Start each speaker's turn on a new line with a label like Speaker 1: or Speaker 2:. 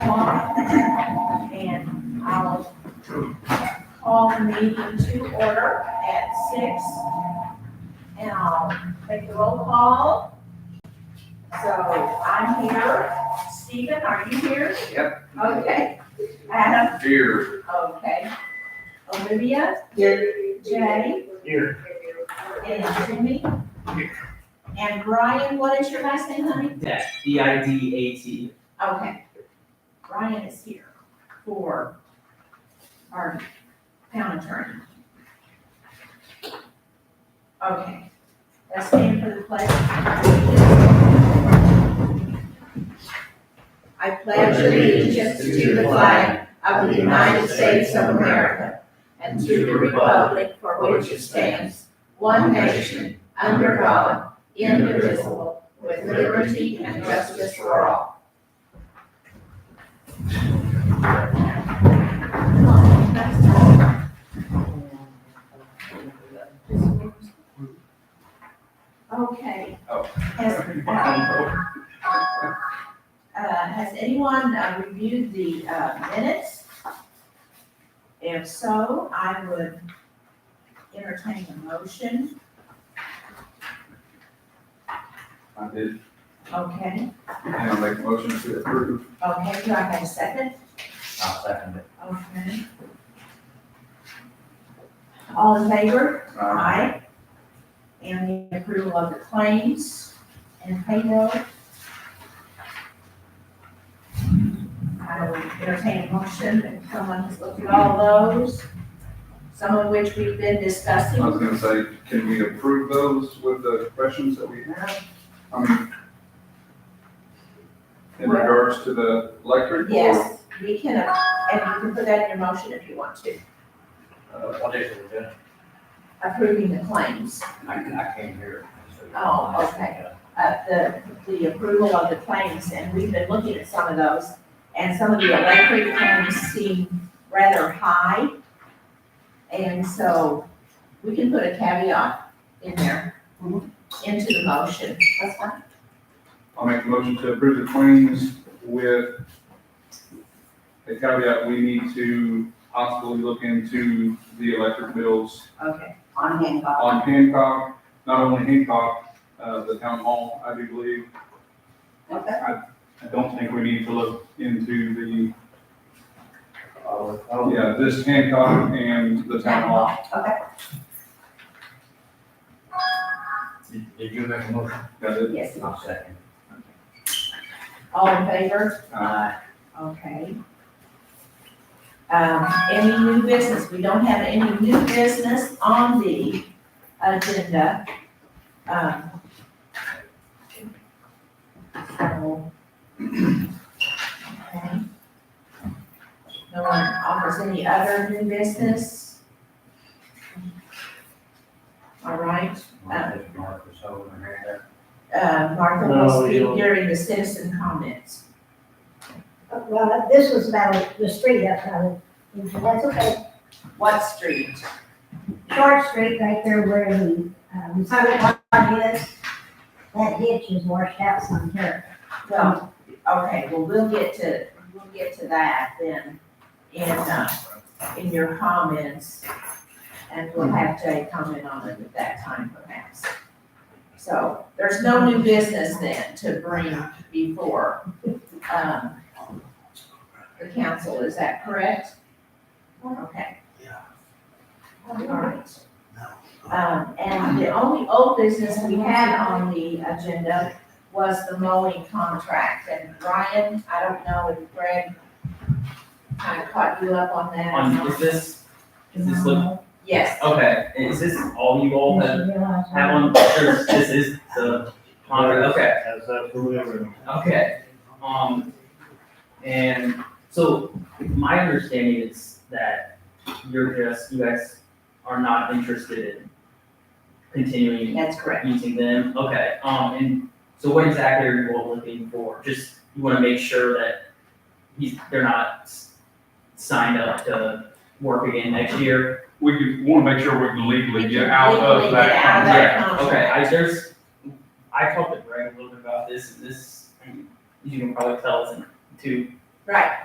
Speaker 1: call the meeting to order at six. And I'll make the roll call. So I'm here. Stephen, are you here?
Speaker 2: Yep.
Speaker 1: Okay. Adam,
Speaker 2: Here.
Speaker 1: okay. Olivia? Jay?
Speaker 2: Here.
Speaker 1: And Jimmy? And Brian, what is your last name, honey?
Speaker 3: Yeah, D I D A T.
Speaker 1: Okay. Brian is here for our town attorney. Okay, let's stand for the pledge. I pledge allegiance to the flag of the United States of America and to the republic for which it stands, one nation, under God, indivisible, with liberty and justice for all. Okay.
Speaker 2: Oh.
Speaker 1: Has, uh, has anyone uh, reviewed the uh, minutes? If so, I would entertain a motion,
Speaker 2: I did,
Speaker 1: okay?
Speaker 2: and I make a motion to approve.
Speaker 1: Okay, do I have a second?
Speaker 3: I'll second it.
Speaker 1: Okay. All in favor?
Speaker 2: Uh,
Speaker 1: Aye. And the approval of the claims and payroll. I will entertain a motion if someone has looked at all those, some of which we've been
Speaker 2: I was
Speaker 1: discussing.
Speaker 2: gonna say, can we approve those with the questions that we have? I mean, in
Speaker 1: Well-
Speaker 2: regards to the electric? or,
Speaker 1: Yes, we can, uh, and you can put that in your motion if you want to,
Speaker 2: uh,
Speaker 3: What is it, Jen?
Speaker 1: approving the claims,
Speaker 3: I, I can't hear.
Speaker 1: Oh, okay. uh, the, the approval of the claims, and we've been looking at some of those. And some of the electric claims seem rather high. And so we can put a caveat in there, into the motion. That's fine.
Speaker 2: I'll make a motion to approve the claims with the caveat, we need to possibly look into the electric bills
Speaker 1: Okay, on Hancock.
Speaker 2: on Hancock, not only Hancock, uh, the town hall, I do believe,
Speaker 1: Okay.
Speaker 2: I don't think we need to look into the,
Speaker 3: Oh, oh,
Speaker 2: yeah, this Hancock and the town hall.
Speaker 1: Okay,
Speaker 3: did did you make a motion?
Speaker 2: Got it?
Speaker 1: yes.
Speaker 3: I'll second.
Speaker 1: All in favor?
Speaker 3: Aye.
Speaker 1: Okay. Um, any new business? We don't have any new business on the agenda. Um, so, okay. No one offers any other new business? All right,
Speaker 3: Marcus, Marcus, over here.
Speaker 1: uh, Martha
Speaker 3: No,
Speaker 1: will
Speaker 3: we
Speaker 1: speak
Speaker 3: don't.
Speaker 1: during the citizen comments.
Speaker 4: Well, this was about the street up on, that's okay,
Speaker 1: What street?
Speaker 4: Short Street right there where the, um, Summit Lodge is. That ditch is washed out some here.
Speaker 1: Well, okay, well, we'll get to, we'll get to that then in, uh, in your comments. And we'll have Jay comment on it at that time perhaps. So there's no new business then to bring before, um, the council, is that correct? Okay. All right. Um, and the only old business we had on the agenda was the mowing contract, and Ryan, I don't know if Greg kind of caught you up on that. or
Speaker 5: On,
Speaker 1: not.
Speaker 5: is this, is this look,
Speaker 1: Yes,
Speaker 5: okay, is this all you all have, have
Speaker 4: Oh, That
Speaker 5: on, this this is the contract, okay,
Speaker 6: As that proven?
Speaker 5: okay. Um, and so my understanding is that you're just, you guys are not interested in continuing
Speaker 1: that's correct.
Speaker 5: using them, okay, um, and so what exactly are you all looking for? Just, you wanna make sure that he's, they're not s- signed up to work again next year?
Speaker 7: We can, wanna make sure we can legally get out
Speaker 1: Legally
Speaker 7: of
Speaker 1: get out of
Speaker 7: that.
Speaker 1: that
Speaker 5: Yeah, okay,
Speaker 1: contract.
Speaker 5: I, there's, I talked to Greg a little bit about this, and this, you can probably tell, isn't too
Speaker 1: Right,